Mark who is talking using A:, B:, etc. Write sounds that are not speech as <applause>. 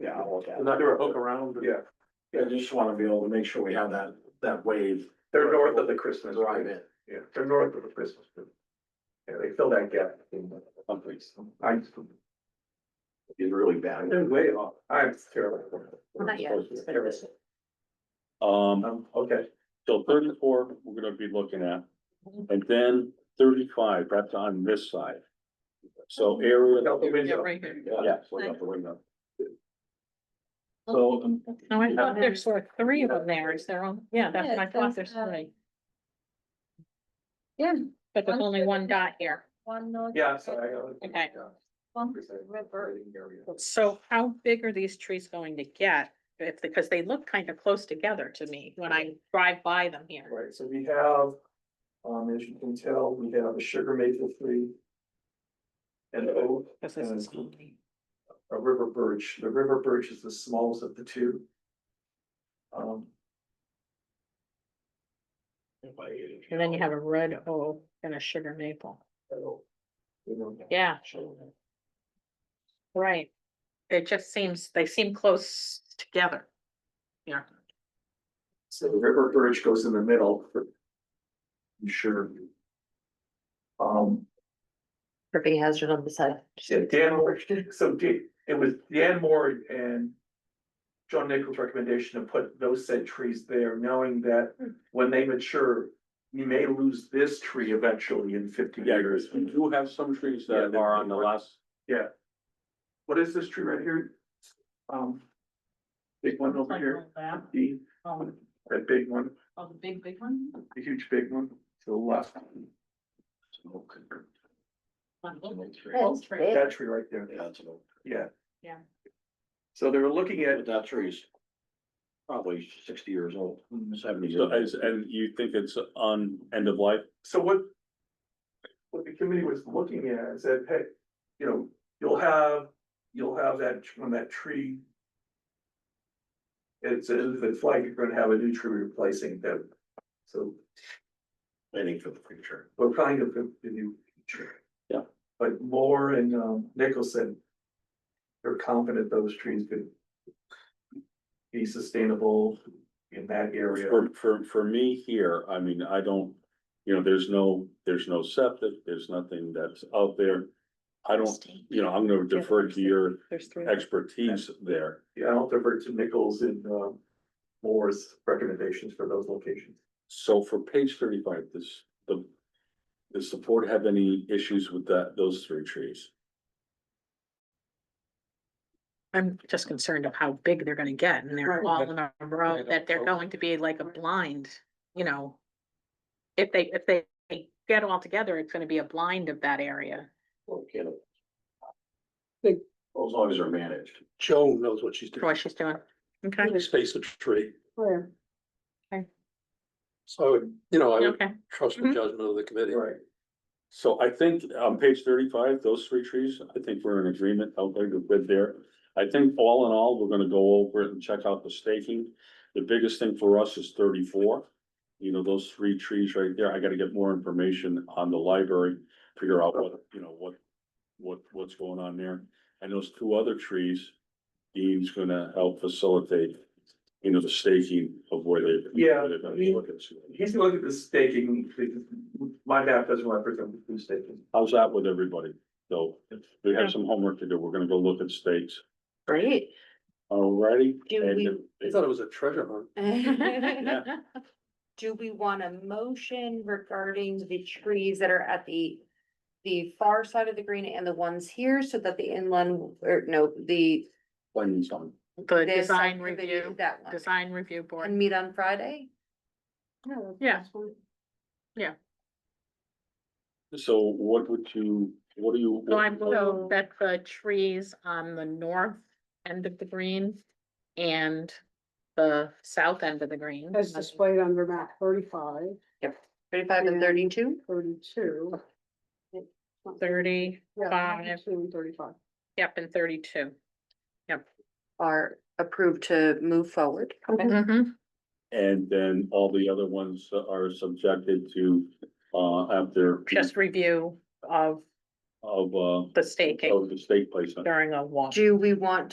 A: look at.
B: They're not gonna hook around. and-
C: Yeah,
A: I just wanna be able to make sure we have that, that wave
C: they're north of the Christmas
A: drive
C: tree.
A: in.
C: Yeah, they're north of the Christmas tree. Yeah, they fill that gap. I,
A: Is really bad.
B: They're way off.
C: I'm terrible.
D: Not yet.
E: Um,
C: Um, okay,
E: so thirty-four, we're gonna be looking at, and then thirty-five, that's on this side. So area,
C: out the window.
D: right here.
E: yeah, so we got the window.
B: So, um,
D: No, I thought there's were three of them there, is there only, yeah, that's
F: Oh, Yeah,
D: my thought,
F: there's,
D: there's
F: uh,
D: three.
F: Yeah.
D: But there's
F: One
D: only
F: for the-
D: one dot here.
F: One north.
C: Yeah, sorry. I-
D: Okay.
F: One river.
D: So how big are these trees going to get? If, because they look kind of close together to me when I drive by them here.
C: Right, so we have, um, as you can tell, we have a sugar maple tree. And oak,
D: This is-
C: a river birch. The river birch is the smallest of the two. Um,
D: And then you have a red oak and a sugar maple.
C: so, you know,
D: Yeah, right. It just seems, they seem close together. Yeah.
C: So the river birch goes in the middle. for- I'm sure. Um,
F: Tripping hazard on the side.
C: yeah, Dan Moore, <laughs> so Dan- it was Dan Moore and. John Nichols' recommendation to put those said trees there, knowing that
F: Hmm.
C: when they mature. You may lose this tree eventually in fifty
E: Yeah, there
C: years.
E: is, we do have some trees that are on the last,
C: What is this tree right here? Um. Big one over here, the,
D: Oh,
C: that big one,
D: the big, big one?
C: the huge big one, uh, to the left,
F: That's big.
C: that tree right there,
A: Yeah, it's an oak.
C: yeah.
D: Yeah.
C: So they were looking at
A: But that tree's probably sixty years old, seventy years.
E: so
A: old.
E: as, and you think it's on end of life?
C: So what? What the committee was looking at is that, hey, you know, you'll have, you'll have that, when that tree. It's, it's like you're gonna have a new tree replacing them, so
A: Waiting for the future.
C: we're trying to put the new tree.
E: Yeah.
C: But Moore and um Nicholson. They're confident those trees could. Be sustainable in that area.
E: For, for, for me here, I mean, I don't, you know, there's no, there's no septic, there's nothing that's out there. I don't, you know, I'm gonna defer to your
D: There's three.
E: expertise there.
C: Yeah, I'll divert to Nichols and um Moore's recommendations for those locations.
E: So for page thirty-five, this, the, does the board have any issues with that, those three trees?
D: I'm just concerned of how big they're gonna get and they're
B: Right,
D: all
B: but-
D: in a row,
B: Right,
D: that they're
B: okay.
D: going to be like a blind, you know. If they, if they get all together, it's gonna be a blind of that area.
A: Well, we can't-
B: Think-
A: Well, As long as they're managed.
B: Joan knows what she's
D: for
B: doing.
D: What she's doing. Okay,
B: Space a tree.
D: Where? Okay.
B: So, I would, you know, I would
D: okay,
B: trust the
D: Mhm.
B: judgment of the committee.
C: Right.
E: So I think on page thirty-five, those three trees, I think we're in agreement, I'll go with there. I think all in all, we're gonna go over it and check out the staking. The biggest thing for us is thirty-four. You know, those three trees right there, I gotta get more information on the library, figure out what, you know, what, what, what's going on there. And those two other trees, Dean's gonna help facilitate, you know, the staking of where they.
C: Yeah.
E: where they're gonna be looking.
C: He's looking at the staking, because my map doesn't represent the staking.
E: How's that with everybody? So we have some homework to do. We're gonna go look at states.
F: Great.
E: Alrighty.
F: Do
E: And
F: we-
E: if-
B: I thought it was a treasure hunt.
D: <laughs>
F: <laughs>
E: Yeah.
F: Do we want a motion regarding the trees that are at the, the far side of the green and the ones here so that the inland, or no, the.
E: When some,
D: the
F: the
D: design
F: subcommittee,
D: review,
F: That one,
D: design review
F: and
D: board,
F: meet on Friday?
D: yeah,
E: so what would you, what do you?
D: so I
F: So-
D: move that the trees on the north end of the green. And the south end of the green.
G: As displayed on Vermont thirty-five,
F: Thirty-five and
G: Yeah.
F: thirty-two?
G: thirty-two. Yeah,
D: Thirty-five,
G: actually Thirty-five.
D: yep, and thirty-two.
F: are approved to move forward.
D: Mhm.
E: And then all the other ones are subjected to, uh, after.
D: Just review of
E: Of, uh,
D: the staking
E: Oh. of the state placement.
D: during a walk.
F: Do we want